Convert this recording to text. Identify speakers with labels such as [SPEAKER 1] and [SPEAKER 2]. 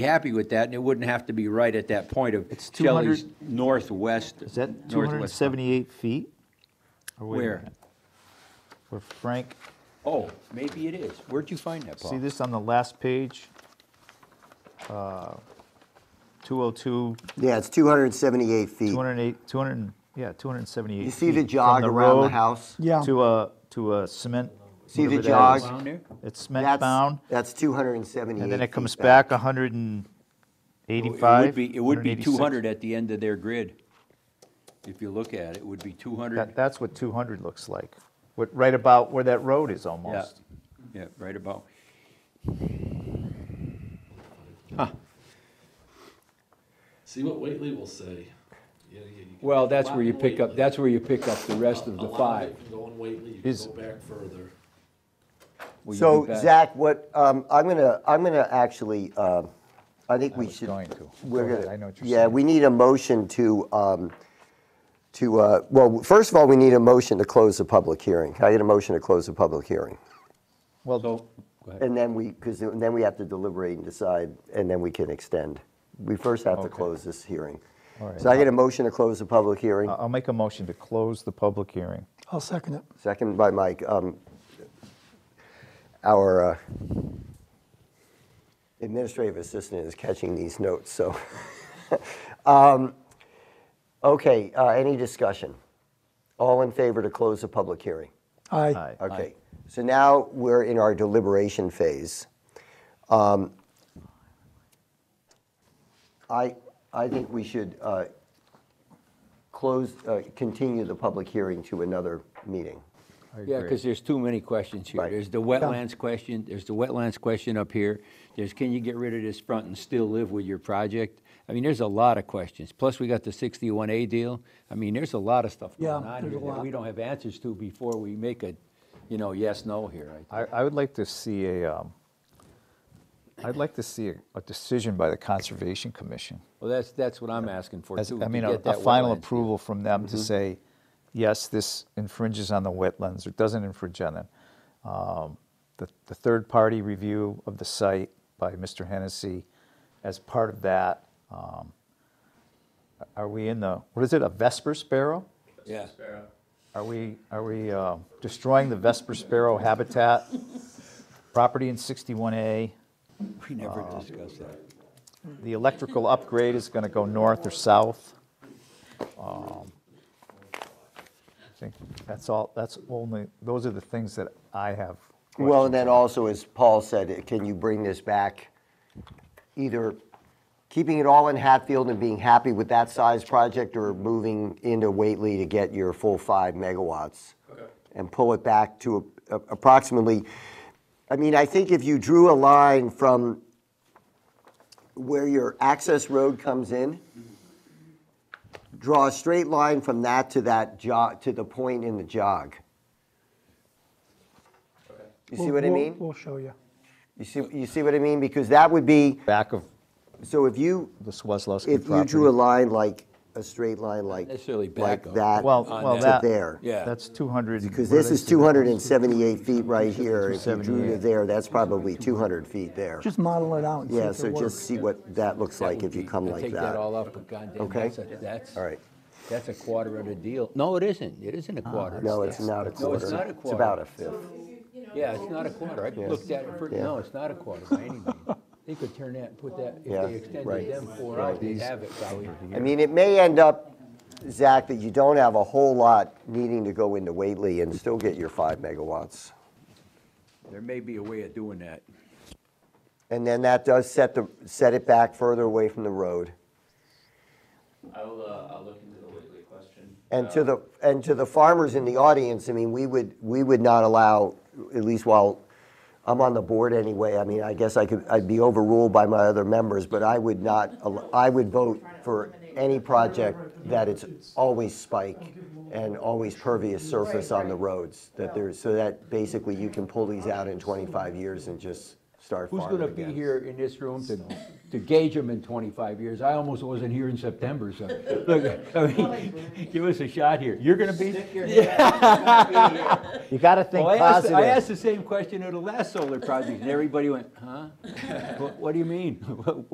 [SPEAKER 1] be happy with that, and it wouldn't have to be right at that point of
[SPEAKER 2] It's 200
[SPEAKER 1] Shelley's northwest.
[SPEAKER 2] Is that
[SPEAKER 1] northwest-
[SPEAKER 2] 278 feet? Or Oh, wait a
[SPEAKER 1] Where?
[SPEAKER 2] minute. Where Frank,
[SPEAKER 1] Oh, maybe it is. Where'd you find that,
[SPEAKER 2] see
[SPEAKER 1] Paul?
[SPEAKER 2] this on the last page? Uh, 202,
[SPEAKER 3] Yeah, it's 278 feet.
[SPEAKER 2] 208, 200, and- yeah, 278
[SPEAKER 3] You see the
[SPEAKER 2] feet
[SPEAKER 3] jog
[SPEAKER 2] from
[SPEAKER 3] around the
[SPEAKER 2] road
[SPEAKER 3] house?
[SPEAKER 4] Yeah.
[SPEAKER 2] To a, to a cement.
[SPEAKER 3] See the
[SPEAKER 2] whatever that is.
[SPEAKER 3] jog?
[SPEAKER 1] Down there?
[SPEAKER 2] It's
[SPEAKER 3] That's-
[SPEAKER 2] cement bound,
[SPEAKER 3] That's 278.
[SPEAKER 2] and then it comes
[SPEAKER 3] feet
[SPEAKER 2] back 185.
[SPEAKER 1] It would be, it would be
[SPEAKER 2] 186.
[SPEAKER 1] 200 at the end of their grid. If you look at it, it would be 200.
[SPEAKER 2] That, that's what 200 looks like, what, right about where that road is
[SPEAKER 1] Yeah,
[SPEAKER 2] almost.
[SPEAKER 1] yeah, right about.
[SPEAKER 5] See what Whately will say. Yeah, yeah, you can-
[SPEAKER 1] Well, that's
[SPEAKER 5] a lot
[SPEAKER 1] where you
[SPEAKER 5] in
[SPEAKER 1] pick up,
[SPEAKER 5] Whately.
[SPEAKER 1] that's where you pick up the rest
[SPEAKER 5] A
[SPEAKER 1] of the
[SPEAKER 5] lot
[SPEAKER 1] five.
[SPEAKER 5] of it can go in Whately, you
[SPEAKER 2] Is-
[SPEAKER 5] can go back further.
[SPEAKER 1] Will you
[SPEAKER 3] So
[SPEAKER 1] be back?
[SPEAKER 3] Zach, what, um, I'm gonna, I'm gonna actually, um, I think we
[SPEAKER 2] was
[SPEAKER 3] should.
[SPEAKER 2] going to.
[SPEAKER 3] we're
[SPEAKER 2] Go ahead,
[SPEAKER 3] gonna-
[SPEAKER 2] I know what you're
[SPEAKER 3] Yeah,
[SPEAKER 2] saying.
[SPEAKER 3] we need a motion to, um, to, uh, well, first of all, we need a motion to close the public hearing. I need a motion to close the public hearing.
[SPEAKER 2] Well,
[SPEAKER 3] And then we, because then we have to deliberate and decide, and then we can extend. We first have to
[SPEAKER 2] Okay.
[SPEAKER 3] close this hearing.
[SPEAKER 2] All right.
[SPEAKER 3] So I get a motion to close the public hearing,
[SPEAKER 2] I- I'll make a motion to close the public hearing.
[SPEAKER 4] I'll second it.
[SPEAKER 3] second by Mike. Um, Our uh, administrative assistant is catching these notes, so. Um, Okay, uh, any discussion? All in favor to close the public hearing?
[SPEAKER 4] Aye.
[SPEAKER 2] Aye.
[SPEAKER 3] Okay, so now we're in our deliberation phase. Um, I, I think we should uh, close, uh, continue the public hearing to another meeting.
[SPEAKER 2] I
[SPEAKER 1] Yeah,
[SPEAKER 2] agree.
[SPEAKER 1] because there's too many questions here.
[SPEAKER 3] Right.
[SPEAKER 1] There's the wetlands question, there's the wetlands question up here. There's, can you get rid of this front and still live with your project? I mean, there's a lot of questions. Plus, we got the sixty-one A deal. I mean, there's a lot of stuff going
[SPEAKER 4] Yeah,
[SPEAKER 1] on
[SPEAKER 4] there's
[SPEAKER 1] here
[SPEAKER 4] a
[SPEAKER 1] that
[SPEAKER 4] lot.
[SPEAKER 1] we don't have answers to before we make a, you know, yes, no here. I-
[SPEAKER 2] I, I would like to see a, um, I'd like to see a, a decision by the Conservation Commission.
[SPEAKER 1] Well, that's, that's what I'm asking for,
[SPEAKER 2] As-
[SPEAKER 1] too.
[SPEAKER 2] I
[SPEAKER 1] to
[SPEAKER 2] mean, a,
[SPEAKER 1] get
[SPEAKER 2] a
[SPEAKER 1] that
[SPEAKER 2] final
[SPEAKER 1] wetlands Mm-hmm. deal.
[SPEAKER 2] approval from them to say, yes, this infringes on the wetlands or doesn't infringe on them. Um, The, the third-party review of the site by Mr. Hennessy, as part of that, um, are we in the, what is it, a Vesper sparrow?
[SPEAKER 1] Yeah.
[SPEAKER 2] Are we, are we uh, destroying the Vesper sparrow habitat? Property in 61A,
[SPEAKER 1] We never discussed that.
[SPEAKER 2] the electrical upgrade is going to go north or south. Um, I think that's all, that's only, those are the things that I have.
[SPEAKER 3] Well,
[SPEAKER 2] questions
[SPEAKER 3] and then
[SPEAKER 2] on.
[SPEAKER 3] also, as Paul said, can you bring this back, either keeping it all in Hatfield and being happy with that size project, or moving into Whately to get your full five megawatts? And pull it back to a- a- approximately, I mean, I think if you drew a line from where your access road comes in, draw a straight line from that to that jog, to the point in the jog. You see
[SPEAKER 4] We'll-
[SPEAKER 3] what I
[SPEAKER 4] we'll-
[SPEAKER 3] mean?
[SPEAKER 4] We'll show you.
[SPEAKER 3] You see, you see what I mean? Because that would be,
[SPEAKER 2] Back of
[SPEAKER 3] so if you,
[SPEAKER 2] the Swazlowski
[SPEAKER 3] if you drew
[SPEAKER 2] property.
[SPEAKER 3] a line like, a straight line like,
[SPEAKER 1] Necessarily
[SPEAKER 3] like
[SPEAKER 1] back up.
[SPEAKER 3] that.
[SPEAKER 2] Well,
[SPEAKER 1] on
[SPEAKER 2] well,
[SPEAKER 1] that.
[SPEAKER 2] that.
[SPEAKER 3] To there.
[SPEAKER 1] Uh, Yeah.
[SPEAKER 2] That's 200.
[SPEAKER 3] Because
[SPEAKER 2] what do
[SPEAKER 3] this
[SPEAKER 2] they
[SPEAKER 3] is
[SPEAKER 2] say?
[SPEAKER 3] 278 feet right here. If you drew to
[SPEAKER 2] 278.
[SPEAKER 3] there, that's probably 200 feet there.
[SPEAKER 4] Just model it out and see
[SPEAKER 3] Yeah,
[SPEAKER 4] if
[SPEAKER 3] so
[SPEAKER 4] it works.
[SPEAKER 3] just see what that looks
[SPEAKER 1] That
[SPEAKER 3] like
[SPEAKER 1] would
[SPEAKER 3] if you
[SPEAKER 1] be-
[SPEAKER 3] come
[SPEAKER 1] I
[SPEAKER 3] like
[SPEAKER 1] Take that
[SPEAKER 3] that.
[SPEAKER 1] all up, but goddamn,
[SPEAKER 3] Okay.
[SPEAKER 1] that's, a- that's.
[SPEAKER 3] All right.
[SPEAKER 1] That's a quarter of the deal. No, it isn't. It isn't a quarter.
[SPEAKER 3] Ah. No, it's not a
[SPEAKER 1] No,
[SPEAKER 3] quarter.
[SPEAKER 1] it's not a
[SPEAKER 3] It's
[SPEAKER 1] quarter.
[SPEAKER 3] about a fifth.
[SPEAKER 1] Yeah, it's not a quarter. I looked at it, for- no, it's not a quarter by any means. They could turn that, and put that, if
[SPEAKER 3] Yeah,
[SPEAKER 1] they
[SPEAKER 3] right.
[SPEAKER 1] extended them four out, they'd have it probably.
[SPEAKER 3] I mean, it may end up, Zach, that you don't have a whole lot needing to go into Whately and still get your five megawatts.
[SPEAKER 1] There may be a way of doing that.
[SPEAKER 3] And then that does set the, set it back further away from the road.
[SPEAKER 6] I will, uh, I'll look into the Whately question.
[SPEAKER 3] And to the, and to the farmers in the audience, I mean, we would, we would not allow, at least while I'm on the board anyway, I mean, I guess I could, I'd be overruled by my other members, but I would not, al- I would vote for any project that it's always spike and always pervious surface on the roads, that there's, so that basically you can pull these out in 25 years and just start
[SPEAKER 1] Who's
[SPEAKER 3] farming
[SPEAKER 1] gonna be
[SPEAKER 3] again.
[SPEAKER 1] here in this room to, to gauge them in twenty-five years? I almost wasn't here in September, so, look, I mean, give us a shot here. You're gonna be?
[SPEAKER 2] You got to think
[SPEAKER 1] Well, I asked,
[SPEAKER 2] positive.
[SPEAKER 1] I asked the same question of the last solar project, and everybody went, huh? What, what do you mean?